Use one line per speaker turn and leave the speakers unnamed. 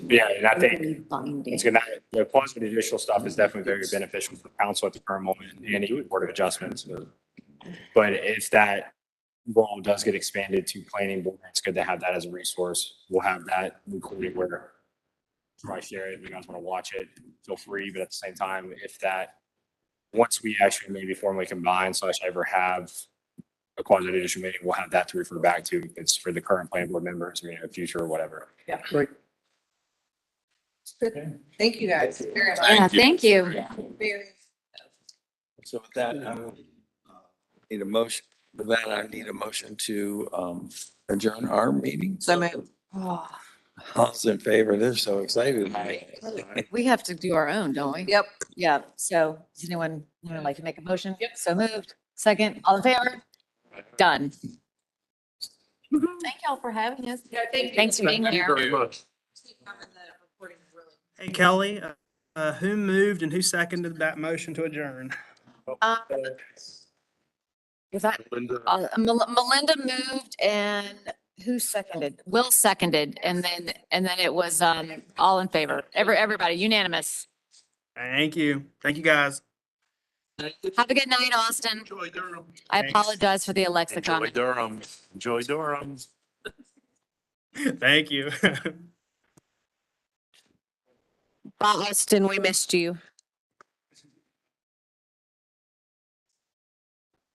Yeah, and I think
Binding.
it's gonna, the quasi judicial stuff is definitely very beneficial for council at the current moment and even board of adjustments. But if that role does get expanded to planning board, it's good to have that as a resource. We'll have that included where I share it, if you guys want to watch it, feel free, but at the same time, if that, once we actually maybe formally combine slash ever have a quasi judicial meeting, we'll have that to refer back to. It's for the current planning board members, you know, future or whatever.
Thank you guys very
Yeah,
much.
thank you.
Very-
So with that, I will uh, need a motion, with that, I need a motion to um, adjourn our meeting.
So moved.
Oh,
All in favor, they're so excited.
We have to do our own, don't we?
Yep.
Yeah, so does anyone, anyone like to make a motion? Yep. So moved. Second, all in favor? Done. Thank y'all for having us. Thanks for being here.
Hey Kelly, uh, uh, who moved and who seconded that motion to adjourn?
Uh, Was that, uh, Mel- Melinda moved and who seconded? Will seconded and then, and then it was, um, all in favor. Every, everybody unanimous.
Thank you. Thank you guys.
Have a good night, Austin.
Enjoy Durham.
I
Thanks.
apologize for the Alexa
Enjoy
comment.
Durham. Enjoy Durham.
Thank you.
Bye, Austin, we missed you.